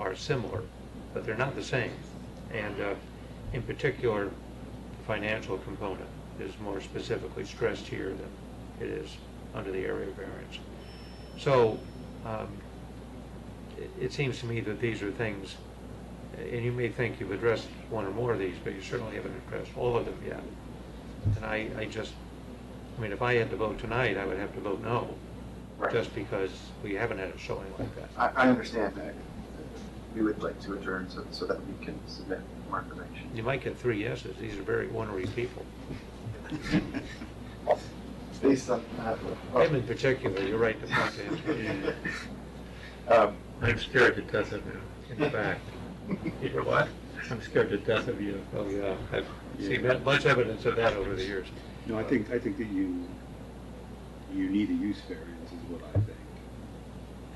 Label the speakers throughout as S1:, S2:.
S1: are similar, but they're not the same. And uh, in particular, the financial component is more specifically stressed here than it is under the area variance. So um, it- it seems to me that these are things, and you may think you've addressed one or more of these, but you certainly haven't addressed all of them yet. And I, I just, I mean, if I had to vote tonight, I would have to vote no,
S2: Right.
S1: just because we haven't had a showing like that.
S2: I, I understand that. We would like to adjourn so, so that we can submit more information.
S1: You might get three yeses. These are very ornery people.
S2: Based on. uh, well-
S1: Him in particular, you're right to point to him.
S2: Um,
S3: I'm scared to death of you, in fact.
S1: You're what?
S3: I'm scared to death of you.
S1: Oh, yeah. I've seen that- much evidence of that over the years.
S4: No, I think, I think that you, you need a use variance is what I think.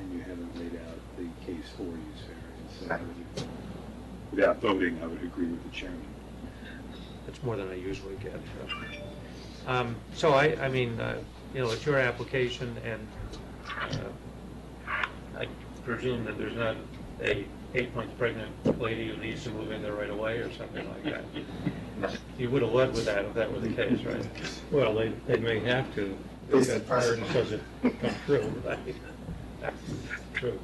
S4: And you haven't laid out the case for use variance. So I would- Without voting, I would agree with the chairman.
S1: That's more than I usually get. so. Um, So I, I mean, uh, you know, it's your application, and uh, I presume that there's not a eight-month pregnant lady who needs to move in there right away or something like that. You would have led with that if that were the case, right?
S3: Well, they, they may have to. if
S2: Based on
S3: That burden doesn't come true.
S1: True.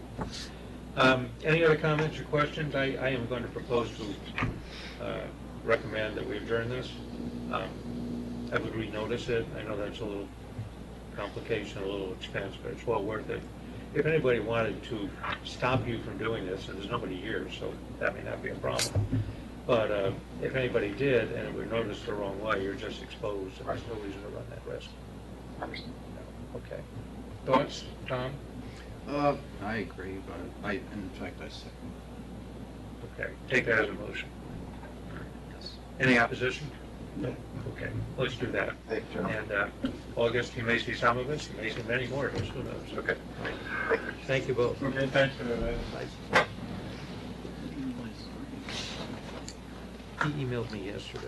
S1: Um, Any other comments or questions? I, I am going to propose to uh, recommend that we adjourn this. Um, I would renotice it. I know that's a little complication, a little expense, but it's well worth it. If anybody wanted to stop you from doing this, and there's nobody here, so that may not be a problem. But uh, if anybody did, and it were noticed the wrong way, you're just exposed, and there's no reason to run that risk.
S2: understand.
S1: Okay. Thoughts, Tom?
S5: Uh, I agree, but I, in fact, I second.
S1: Okay, take that as a motion. Any opposition? No. Okay, let's do that.
S2: Thank you, gentlemen.
S1: And uh, August, you may see some of us, you may see many more of us, who knows?
S2: Okay.
S1: Thank you both.
S3: Okay, thanks for that.
S1: He emailed me yesterday.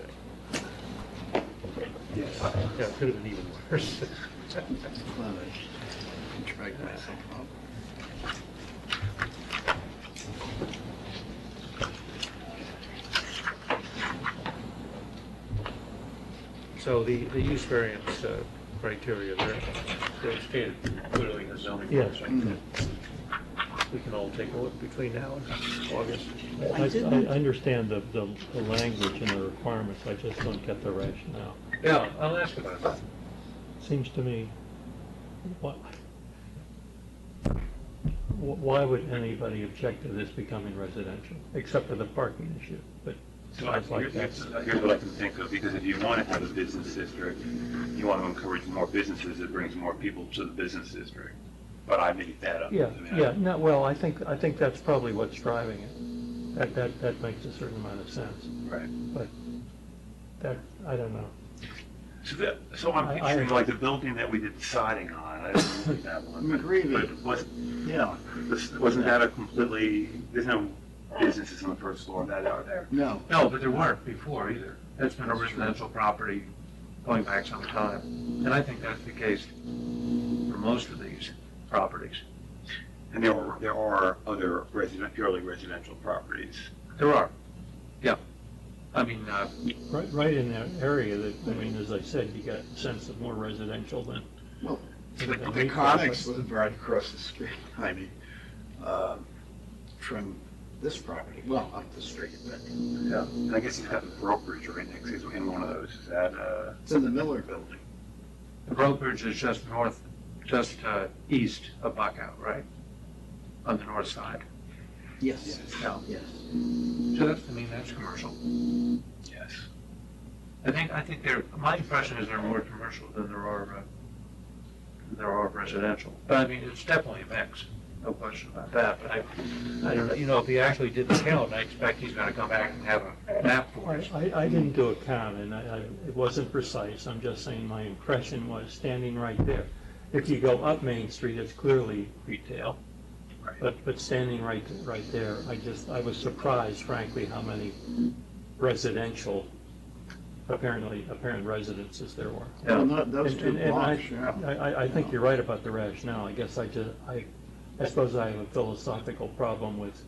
S4: Yes.
S1: Yeah, it could have been even worse.
S5: Well, I Drag myself up.
S1: So the, the use variance uh, criteria, they're, they're stated clearly in the zoning.
S3: Yes.
S1: ordinance. We can all take a look between now and August.
S3: I, I understand the, the the language and the requirements, I just don't get the rationale.
S1: Yeah, I'll ask about that.
S3: Seems to me, what, wh- why would anybody object to this becoming residential, except for the parking issue? But
S6: So I,
S3: sounds like
S6: here's,
S3: that's,
S6: here's what I can think of, because if you want to have a business district, you want to encourage more businesses, it brings more people to the business district. But I made that up.
S3: yeah,
S6: I mean, I-
S3: yeah, no, well, I think, I think that's probably what's driving it. That, that, that makes a certain amount of sense,
S6: Right.
S3: but that, I don't know.
S6: So that, so I'm
S3: I- I-
S6: picturing like the building that we did siding on, I don't know that one. but-
S5: McGreevy.
S6: But wasn't,
S5: Yeah,
S6: this- wasn't that a completely, there's no businesses on the first floor of that out there?
S5: no,
S6: No, but there weren't before either. That's been a residential property going back some time. And I think that's the case for most of these properties. And there are, there are other resident, purely residential properties. There are, yeah. I mean, uh,
S3: Right, right in that area that, I mean, as I said, you got a sense of more residential than.
S5: well, the
S3: than
S5: the
S3: retail,
S5: Conics
S3: but-
S5: live right across the street, I mean, uh, from this property, well, up the street, but
S6: yeah, and I guess he's got the brokerage right next, he's in one of those, is that, uh?
S5: it's in the Miller Building.
S6: The brokerage is just north, just, uh, east of Buckout, right? On the north side.
S5: Yes.
S6: Yeah.
S5: Yes.
S6: So that's, I mean, that's commercial. Yes. I think, I think there, my impression is there are more commercial than there are, uh, there are residential. But I mean, it's definitely a mix, no question about that, but I, I don't know, you know, if he actually did the count, I expect he's gonna come back and have a map for us.
S3: I, I didn't do a count, and I, I, it wasn't precise, I'm just saying my impression was standing right there. If you go up Main Street, it's clearly retail,
S6: Right.
S3: but, but standing right, right there, I just, I was surprised frankly how many residential, apparently, apparent residences there were.
S6: Yeah.
S5: Well, no, those
S3: And-
S5: two
S3: and- and I-
S5: blocks, yeah.
S3: I, I, I think you're right about the rationale, I guess I just, I, I suppose I have a philosophical problem with